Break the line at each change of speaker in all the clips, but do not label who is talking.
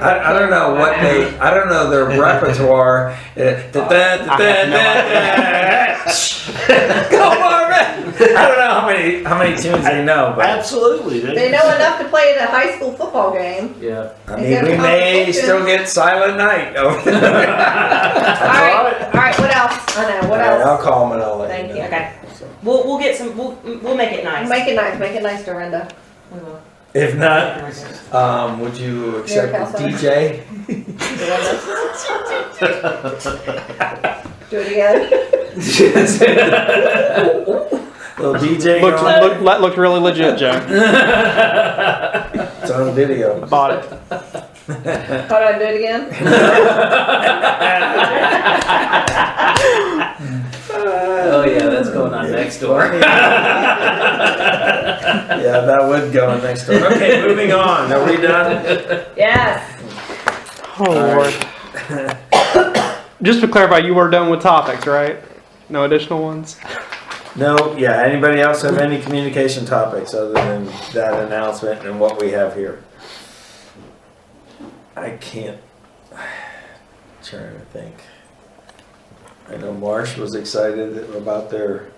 I, I don't know what they. I don't know their repertoire. Eh, da- da- da- da- da- da- Go Marvin! I don't know how many how many tunes they know, but
Absolutely.
They know enough to play at a high school football game.
Yeah.
I mean, we may still get Silent Night. over there.
All right, all right. What else? I know. What
All right, I'll
else?
call them and I'll let
Thank
you
you.
know.
Okay. We'll, we'll get some, we'll, we'll make it nice.
Make it nice. Make it nice, Dorinda.
We will.
If not, um, would you accept
Mary Kyle
the
Sutter.
DJ?
Dorinda. Do it again.
Little DJ
Looked,
going?
looked, looked really legit, Joe.
It's on video.
Bought it.
Hold on. Do it again.
Oh yeah, that's going on next door.
Yeah, that would go in next door. Okay, moving on. Are we done?
Yes.
Oh, Lord. Just to clarify, you were done with topics, right? No additional ones?
No, yeah. Anybody else have any communication topics other than that announcement and what we have here? I can't. Trying to think. I know Marsh was excited about their,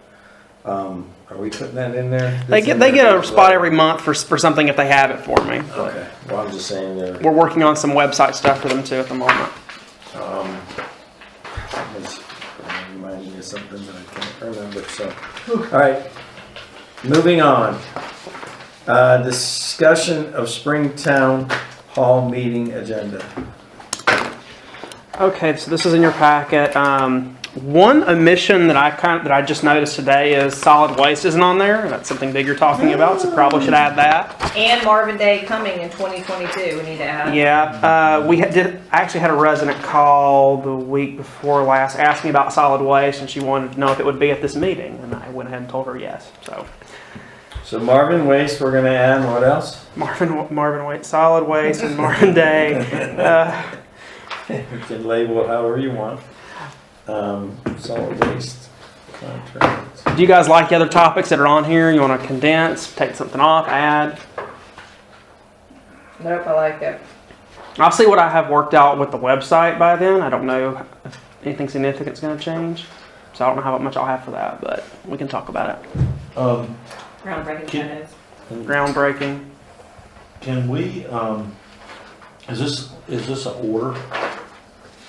um, are we putting that in there?
They get, they get a spot every month for, for something if they have it for me.
Okay, well, I'm just saying there.
We're working on some website stuff for them too at the moment.
Um, it was reminding me of something that I can't remember, so, alright, moving on. Uh, discussion of Springtown Hall meeting agenda.
Okay, so this is in your packet. Um, one omission that I kind that I just noticed today is solid waste isn't on there. That's something big you're talking about, so probably should add that.
And Marvin Day coming in 2022. We need to add.
Yeah, uh, we had, did I actually had a resident call the week before last asking about solid waste, and she wanted to know if it would be at this meeting, and I went ahead and told her yes. So
So Marvin Waste, we're gonna add, what else?
Marvin Marvin Waste, solid waste, and Marvin Day. Uh,
You can label it however you want. Um, solid waste contract.
do you guys like the other topics that are on here? You want to condense, take something off, add?
Nope. I like it.
I'll see what I have worked out with the website by then. I don't know if anything significant's going to change. So I don't know how much I'll have for that, but we can talk about it.
Um,
Groundbreaking
Can-
photos.
Groundbreaking.
can we, um, is this, is this an order?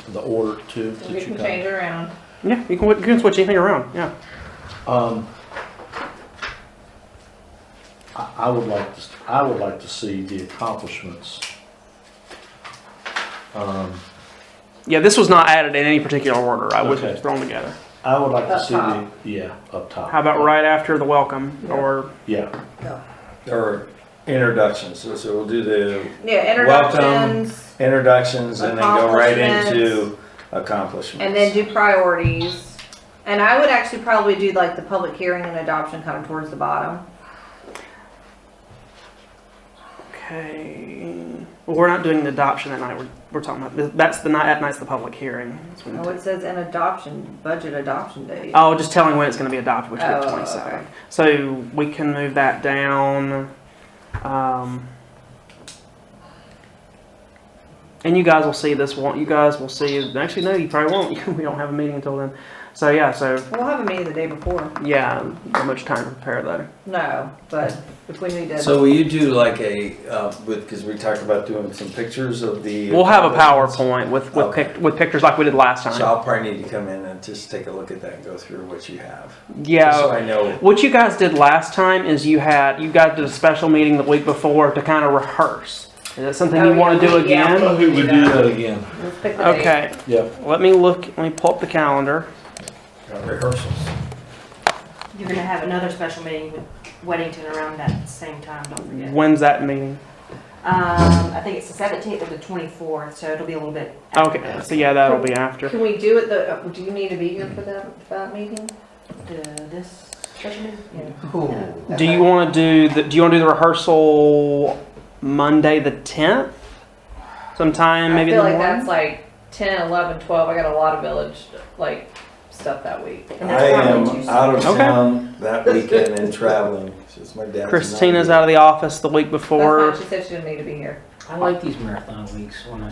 The order to, that
We
you
can
got?
change it around.
Yeah, you can, you can switch anything around. Yeah.
Um, I, I would like to, I would like to see the accomplishments. Um,
Yeah, this was not added in any particular order. I was
Okay.
just thrown together.
I would like to
Up
see the, yeah, up top.
How about right after the welcome or
Yeah,
Or introductions, so, so we'll do the
Yeah.
Welcome.
Introductions.
introductions and then go right into
Accomplishments.
accomplishments.
And then do priorities. And I would actually probably do like the public hearing and adoption kind of towards the bottom.
okay? Well, we're not doing the adoption that night. We're, we're talking about that's the night. That night's the public hearing. That's when-
Oh, it says an adoption, budget adoption date.
Mm-hmm. Oh, just telling when it's going to be adopted, which will be
Oh,
the 27th.
okay.
So we can move that down. Um, and you guys will see this one. You guys will see. Actually, no, you probably won't. we don't have a meeting until then. So yeah, so
We'll have a meeting the day before.
yeah, not much time to prepare though.
No, but if we need to.
So will you do like a, uh, with, cause we talked about doing some pictures of the.
We'll have a PowerPoint with with, pic- with pictures like we did last time.
So I'll probably need to come in and just take a look at that and go through what you have.
yeah.
Just so I know,
What you guys did last time is you had you guys did a special meeting the week before to kind of rehearse. Is that something
Oh,
you
yeah,
want to do
we- yeah.
again?
I who would do that again.
Let's pick the date.
Okay.
Yeah.
Let me look, let me pull up the calendar.
uh, rehearsals.
You're gonna have another special meeting with Weddington around that same time, don't forget. Um,
When's that meeting?
I think it's the seventeenth or the twenty-fourth, so it'll be a little bit. after
Okay,
that.
so yeah, that'll be after.
Can we do it the, uh, do you need to be here for that, for that meeting?
The- This special meeting? Yeah.
Do you want to do the, do you want to do the rehearsal Monday the tenth? Sometime
I
maybe in
feel
the
like that's
morning?
like ten, eleven, twelve. I got a lot of village, like, stuff that week.
And
I
that's
am
probably Tuesday.
out of
Okay.
town that weekend and traveling, since my dad's. not
Christina's
here.
out of the office the week
That's
before.
fine. She said she didn't need to be here.
I like these marathon weeks when I